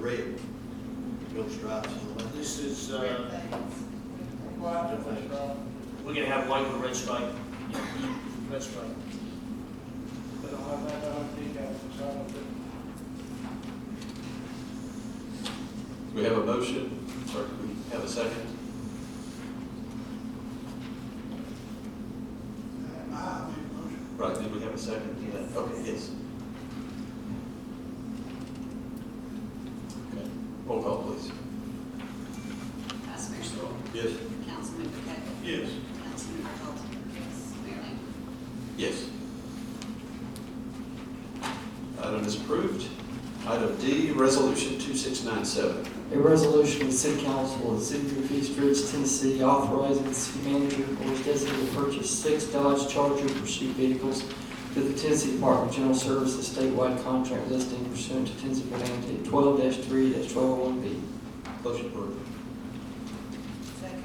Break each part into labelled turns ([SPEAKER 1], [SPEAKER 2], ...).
[SPEAKER 1] red, no stripes on it.
[SPEAKER 2] This is,
[SPEAKER 3] Red
[SPEAKER 2] uh,
[SPEAKER 3] things.
[SPEAKER 2] we're gonna have white with red stripe, you know, red stripe.
[SPEAKER 4] Do we have a motion, or do we have a second? Right, did we have a second? to that?
[SPEAKER 3] Yes.
[SPEAKER 4] Okay, yes. Okay, roll call please.
[SPEAKER 5] Vice Mayor Stoll.
[SPEAKER 1] Yes.
[SPEAKER 5] Councilmember Cagle.
[SPEAKER 1] Yes.
[SPEAKER 5] Councilmember Hilton.
[SPEAKER 3] Yes.
[SPEAKER 5] Mayor Lambert.
[SPEAKER 4] Yes. Item is approved. Item D, resolution two six nine seven.
[SPEAKER 6] A resolution of the City Council of the City of East Ridge, Tennessee, authorizing the city manager or his designee to purchase six Dodge Charger pursuit vehicles through the Tennessee Department of General Services statewide contract listing pursuant to Tennessee Code twelve three twelve one B.
[SPEAKER 4] Motion approved.
[SPEAKER 3] Second.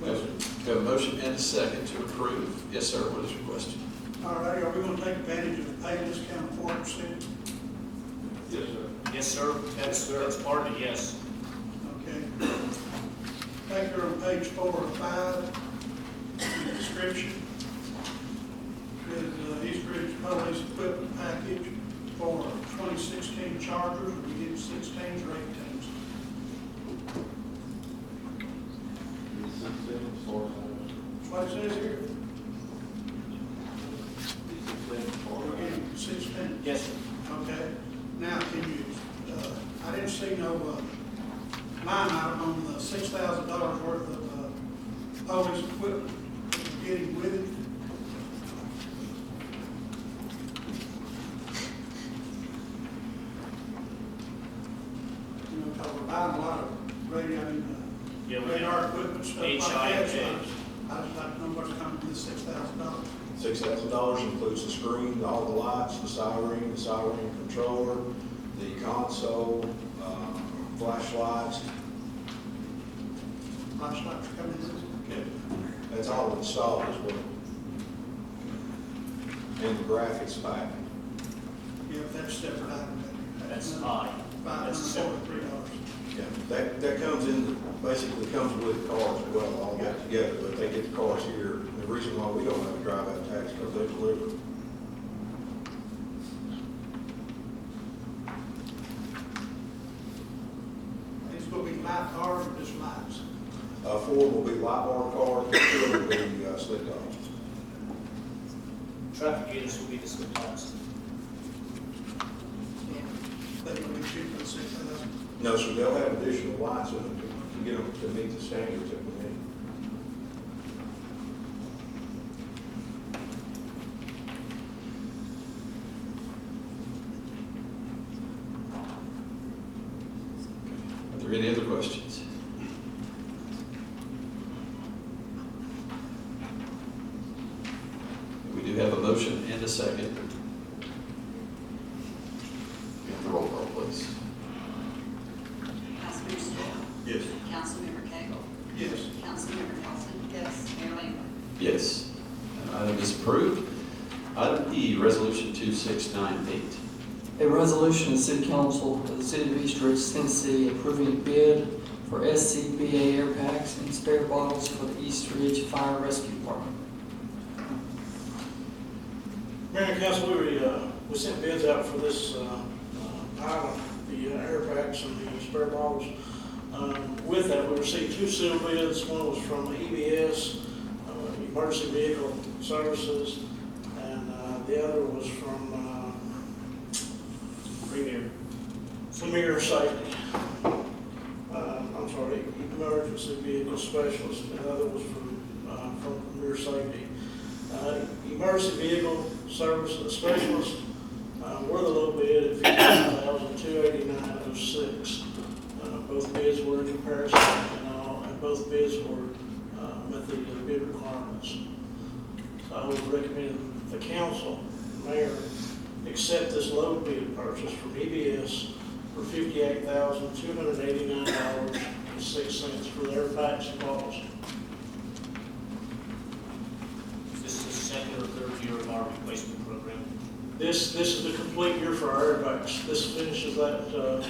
[SPEAKER 4] Motion. We have a motion and a second to approve. Yes, sir, what is your question?
[SPEAKER 7] All right, are we gonna take advantage of the pay discount four percent?
[SPEAKER 1] Yes, sir.
[SPEAKER 2] Yes, sir, that's, that's part of it, yes.
[SPEAKER 7] Okay. Back there on page four or five, in the description, with East Ridge Police Equipment Package for twenty sixteen Chargers, we get sixteens or eighteens. That's what it says here. We're getting sixteens.
[SPEAKER 2] Yes, sir.
[SPEAKER 7] Okay, now can you, uh, I didn't see no, uh, line item on the six thousand dollars worth of, uh, police equipment that you're getting with it. You know, 'cause we're buying a lot of radio, I
[SPEAKER 2] Yeah,
[SPEAKER 7] mean,
[SPEAKER 2] we
[SPEAKER 7] uh, radar equipment, stuff like that. so
[SPEAKER 2] HIA.
[SPEAKER 7] I just like to know what's coming with six thousand dollars.
[SPEAKER 1] Six thousand dollars includes the screen, all the lights, the siren, the siren controller, the console, uh, flashlights.
[SPEAKER 7] Flashlights are coming with it.
[SPEAKER 1] That's all installed as well. And the graphics pack.
[SPEAKER 7] Yeah, but that's separate item. but
[SPEAKER 2] that's
[SPEAKER 7] another-
[SPEAKER 2] I.
[SPEAKER 7] Five
[SPEAKER 2] That's
[SPEAKER 7] hundred
[SPEAKER 2] separate.
[SPEAKER 7] forty-three dollars.
[SPEAKER 1] Yeah, that, that comes in, basically comes with cars as well, all that together, but they get the cars here. The reason why we don't have a drive-out tax, because they deliver.
[SPEAKER 7] It's gonna be light cars or just lights?
[SPEAKER 1] Uh, four will be light bar cars, two will be, uh, slick dogs.
[SPEAKER 2] Traffic gators will be the split times.
[SPEAKER 7] They're gonna be cheaper than six thousand.
[SPEAKER 1] No, so they'll have additional lights in them to- to get them to meet the standards that we need.
[SPEAKER 4] Are there any other questions? We do have a motion and a second. We have the roll call, please.
[SPEAKER 5] Vice Mayor Stoll.
[SPEAKER 1] Yes.
[SPEAKER 5] Councilmember Cagle.
[SPEAKER 7] Yes.
[SPEAKER 5] Councilmember Hilton.
[SPEAKER 3] Yes.
[SPEAKER 5] Mayor Lambert.
[SPEAKER 4] Yes. Item is approved. Item E, Resolution 2698.
[SPEAKER 6] A resolution of the City Council of the City of East Ridge, Tennessee, approving a bid for SCBA air packs and spare bottles for the East Ridge Fire Rescue Department.
[SPEAKER 8] Mayor and council, we, were, uh, we sent bids out for this, uh, uh, item, the uh, air packs and the spare bottles. Um, with that, we received two sealed bids, one was from EBS, uh, Emergency Vehicle Services, and, uh, the other was from, uh, Premier, Premier Safety. Uh, I'm sorry, Emergency Vehicle Specialist, and the other was from, uh, from Premier Safety. Uh, Emergency vehicle service specialist, uh, we're the low bid at fifteen thousand two eighty-nine oh six. Uh, Both bids were in comparison and all, and both bids were, uh, met the uh, bid requirements. So I would recommend the council, mayor, accept this low bid purchase from EBS for fifty-eight thousand two hundred eighty-nine dollars and six cents for their fax and bottles.
[SPEAKER 2] This is the second or third year of our replacement program.
[SPEAKER 8] This, this is the complete year for our airbags. This finishes that, uh,